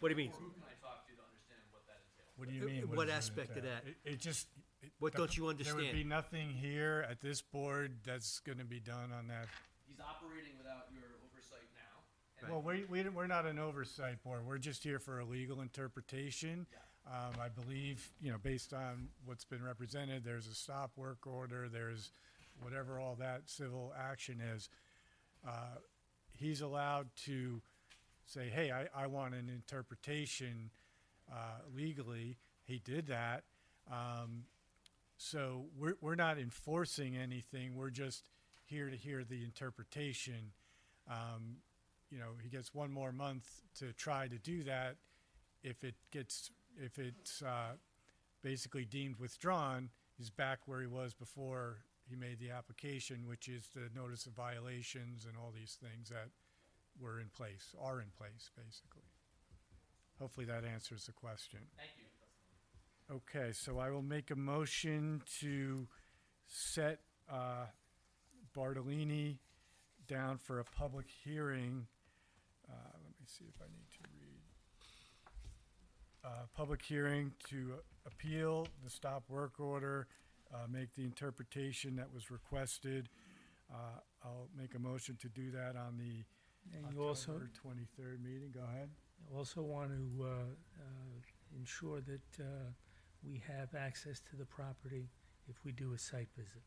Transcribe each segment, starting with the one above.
What do you mean? Who can I talk to to understand what that entails? What do you Uh, mean? what does it aspect of entail? that? It- It just. it- What the- don't you There would be understand? nothing here at this board that's gonna be done on that. He's operating without your oversight now. and Well, we, we, we're not an oversight board. We're just here for a legal interpretation. Um, I believe, you know, based on what's been represented, there's a stop work order, there's whatever all that civil action is. Uh, He's allowed to say, hey, I, I want an interpretation, uh, legally. He did that. Um, so we're, we're not enforcing anything. We're just here to hear the interpretation. Um, you know, he gets one more month to try to do that. If it gets, if it's uh, basically deemed withdrawn, he's back where he was before he made the application, which is the notice of violations and all these things that were in place, are in place, basically. Hopefully that answers the question. Thank you. Okay, so I will make a motion to set uh, Bartolini down for a public hearing. Uh, Let me see if I need to read. Uh, Public hearing to appeal the stop work order, uh, make the interpretation that was requested. Uh, I'll make a motion to do that on the And you also, October 23rd meeting. Go ahead. you also want to uh, uh, ensure that uh, we have access to the property if we do a site visit.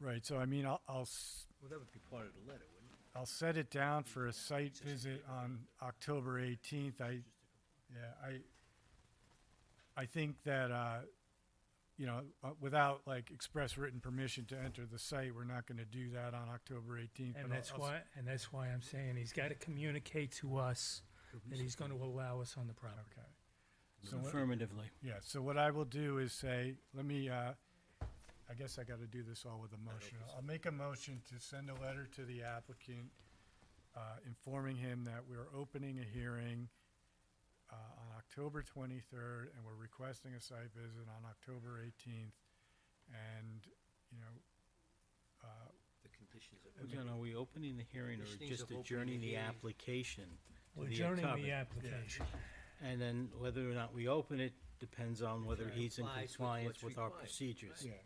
Right, so I mean, I'll, I'll s- Well, that would be part of the letter, wouldn't it? I'll set it down for a site visit on October 18th. I, yeah, I, I think that, uh, you know, uh, without like express written permission to enter the site, we're not going to do that on October 18th. but And I'll- that's I'll s- why, and that's why I'm saying he's got to communicate to us that he's going to allow us on the property. Okay. So what- Affirmatively. Yeah, so what I will do is say, let me, uh, I guess I gotta do this all with a motion. I'll make a motion to send a letter to the applicant, uh, informing him that we're opening a hearing, uh, on October twenty-third, and we're requesting a site visit on October eighteenth. And, you know, uh, The conditions of. No, no, are we opening the hearing or Conditions just of opening adjourning the the hearing. application to We're the adjourning the October? application. And then whether or not we open it depends on whether he's in Complies with compliance what's with our required, procedures. right.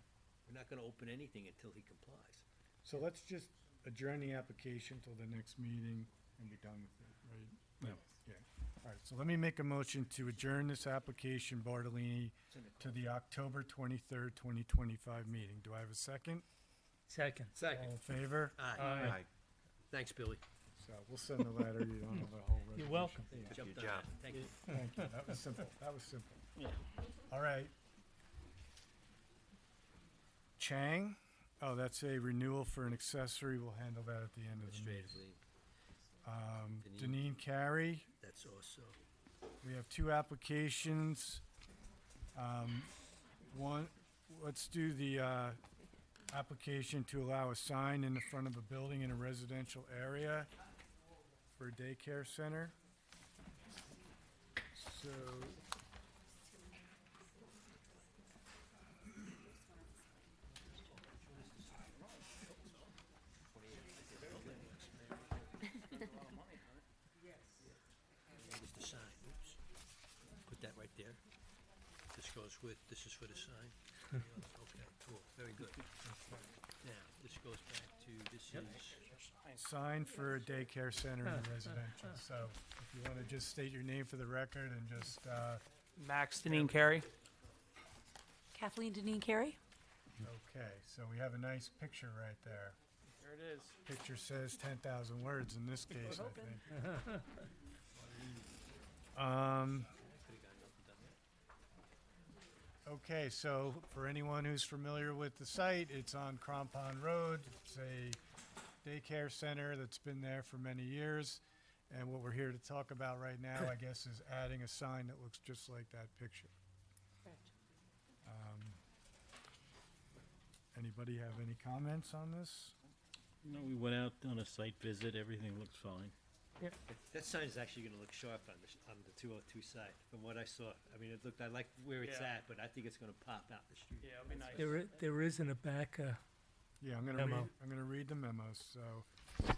We're not gonna open anything until he complies. so let's just adjourn the application till the next meeting and be done with it, right? Yeah. Yeah, all right, so let me make a motion to adjourn this application, Bartolini, to the October twenty-third, twenty twenty-five meeting. Do I have a second? Second. All in favor? Aye. Aye. Thanks, Billy. So we'll send a letter, you don't have a whole resolution. You're welcome. Jumped on that. Thank you. Thank you, that was simple, that was simple. All right. Chang, oh, that's a renewal for an accessory, we'll handle that at the end of the meeting. Administratively, Um, Deneen. Deneen Carey, that's also. We have two applications. Um, One, let's do the uh, application to allow a sign in the front of a building in a residential area for a daycare center. So. Here's the sign, oops. Put that right there. This goes with, this is for the sign. Okay, cool, very good. Now, this goes back to, this is, Sign for a daycare center in a residential. So if you want to just state your name for the record and just, uh, Max Denine Carey. Kathleen Deneen Carey? okay, so we have a nice picture right there. There it is. Picture says ten thousand words in this case, I think. Um. Okay, so for anyone who's familiar with the site, it's on Crampon Road. It's a daycare center that's been there for many years. And what we're here to talk about right now, I guess, is adding a sign that looks just like that picture. Um, Anybody have any comments on this? You know, we went out on a site visit, everything looks fine. That sign is actually gonna look sharp on the, sh- on the two oh two side, from what I saw. I mean, it looked, I like where it's Yeah. at, but I think it's gonna pop out the street. Yeah, it'll be nice. There, i- there is in the back, uh, Yeah, I'm gonna read, Memo. I'm gonna read the memo, so